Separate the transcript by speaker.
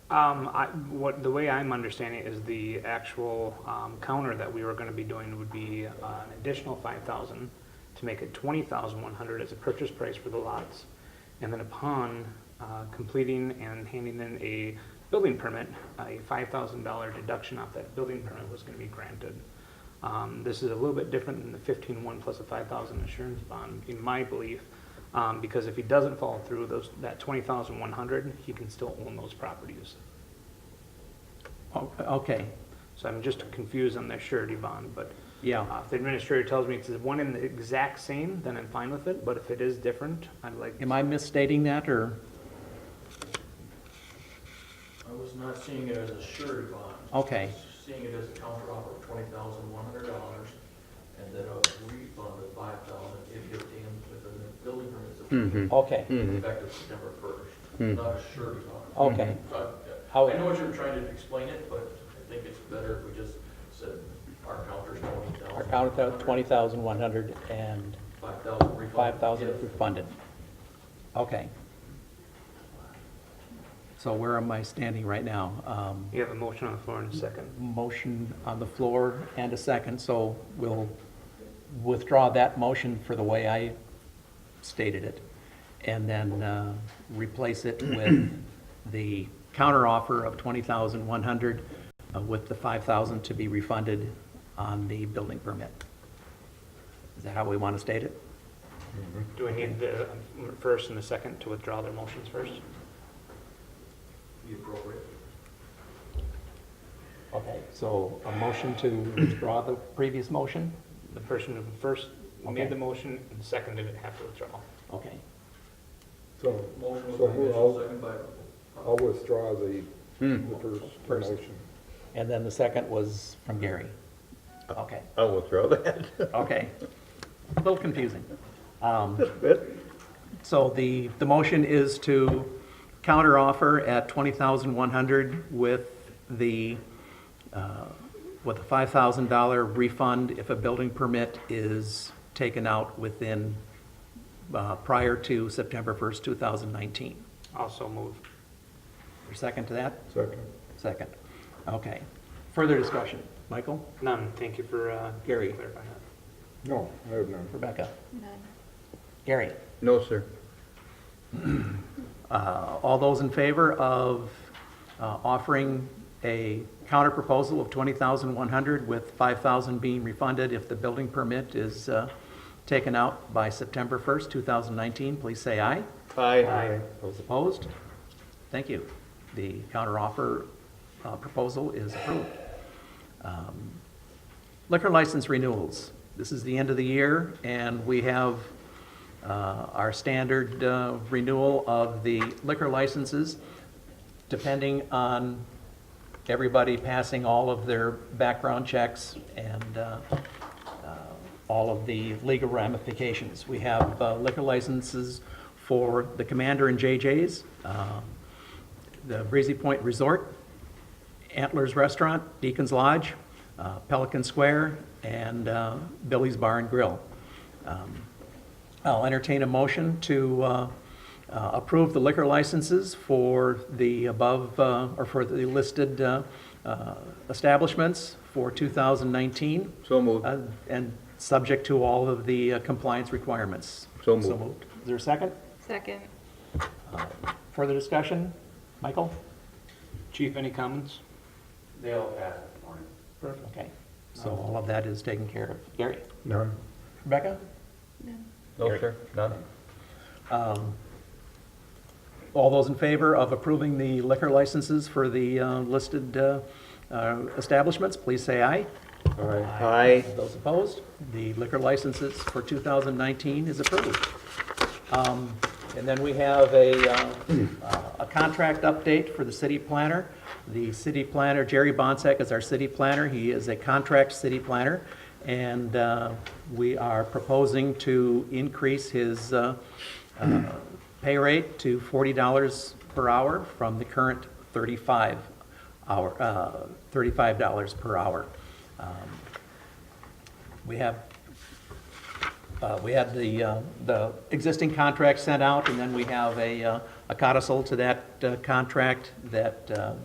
Speaker 1: Um, I, what, the way I'm understanding it is the actual, um, counter that we were gonna be doing would be uh, an additional five thousand to make it twenty thousand one hundred as a purchase price for the lots. And then upon, uh, completing and handing in a building permit, a five thousand dollar deduction off that building permit was gonna be granted. Um, this is a little bit different than the fifteen one plus a five thousand insurance bond, in my belief. Um, because if he doesn't follow through, those, that twenty thousand one hundred, he can still own those properties.
Speaker 2: O- Okay,
Speaker 1: So I'm just confused on their surety bond, but
Speaker 2: yeah,
Speaker 1: uh, if the administrator tells me it's the one and the exact same, then I'm fine with it, but if it is different, I'd like.
Speaker 2: am I misstating that, or,
Speaker 3: I was not seeing it as a surety bond.
Speaker 2: okay,
Speaker 3: I was Seeing it as a counter offer of twenty thousand one hundred dollars, and then a refund of five thousand if you obtain within the building permits
Speaker 2: Mm-hmm.
Speaker 3: approved
Speaker 2: okay,
Speaker 3: effective September first, not a surety bond.
Speaker 2: Mm-hmm. okay, Oh.
Speaker 3: So I
Speaker 2: How-
Speaker 3: I know what you're trying to explain it, but I think it's better if we just said our counter's twenty thousand.
Speaker 2: our count out twenty thousand one hundred and
Speaker 3: Five thousand refund.
Speaker 2: five thousand
Speaker 3: if-
Speaker 2: if refunded. Okay. So where am I standing right now? Um,
Speaker 1: You have a motion on the floor in a second.
Speaker 2: motion on the floor and a second, so we'll withdraw that motion for the way I stated it, and then uh, replace it with the counteroffer of 20,100 uh, with the 5,000 to be refunded on the building permit. Is that how we want to state it?
Speaker 1: Do we need the um, first and the second to withdraw their motions first?
Speaker 3: Be appropriate.
Speaker 2: Okay. So a motion to withdraw the previous motion?
Speaker 1: The person who first
Speaker 2: Okay.
Speaker 1: made the motion and seconded it have to withdraw.
Speaker 2: Okay.
Speaker 4: So
Speaker 3: Motion was
Speaker 4: So
Speaker 3: by
Speaker 4: who
Speaker 3: Mitchell,
Speaker 4: else?
Speaker 3: second by,
Speaker 4: I'll withdraw the, the first
Speaker 2: First.
Speaker 4: motion.
Speaker 2: And then the second was from Gary. Okay.
Speaker 5: I'll withdraw that.
Speaker 2: Okay. A little confusing. Um, So the, the motion is to counteroffer at 20,100 with the, uh, with a $5,000 refund if a building permit is taken out within, uh, prior to September 1st, 2019.
Speaker 1: Also move.
Speaker 2: Your Second to that?
Speaker 4: Second.
Speaker 2: Second. Okay. Further discussion? Michael?
Speaker 1: None, thank you for uh,
Speaker 2: Gary.
Speaker 1: clarifying that.
Speaker 4: No, I have none.
Speaker 2: Rebecca?
Speaker 6: None.
Speaker 2: Gary?
Speaker 5: No, sir.
Speaker 2: Uh, All those in favor of uh, offering a counterproposal of 20,100 with 5,000 being refunded if the building permit is uh, taken out by September 1st, 2019, please say aye.
Speaker 5: Aye.
Speaker 2: Those opposed? Thank you. The counteroffer uh, proposal is approved. Um, Liquor license renewals. This is the end of the year, and we have uh, our standard uh, renewal of the liquor licenses, depending on everybody passing all of their background checks and uh, uh, all of the legal ramifications. We have uh, liquor licenses for the Commander and JJ's, um, the Breezy Point Resort, Antlers Restaurant, Deacon's Lodge, uh, Pelican Square, and uh, Billy's Bar and Grill. Um, I'll entertain a motion to uh, uh, approve the liquor licenses for the above, uh, or for the listed uh, uh, establishments for 2019.
Speaker 5: So moved.
Speaker 2: Uh, And subject to all of the uh, compliance requirements.
Speaker 5: So moved.
Speaker 2: Is there a second?
Speaker 6: Second.
Speaker 2: Further discussion? Michael?
Speaker 1: Chief, any comments?
Speaker 3: They all passed this morning.
Speaker 2: Okay. So all of that is taken care of. Gary?
Speaker 4: None.
Speaker 2: Rebecca?
Speaker 6: None.
Speaker 5: No, sir. None.
Speaker 2: Um, All those in favor of approving the liquor licenses for the uh, listed uh, uh, establishments, please say aye.
Speaker 5: Aye.
Speaker 2: Those opposed, the liquor licenses for 2019 is approved. Um, And then we have a, uh, a contract update for the city planner. The city planner, Jerry Bonsack is our city planner. He is a contract city planner. And uh, we are proposing to increase his uh, uh, pay rate to $40 per hour from the current 35 hour, uh, $35 per hour. Um, we have, uh, we had the, uh, the existing contract sent out, and then we have a, uh, a codicil to that uh, contract that uh,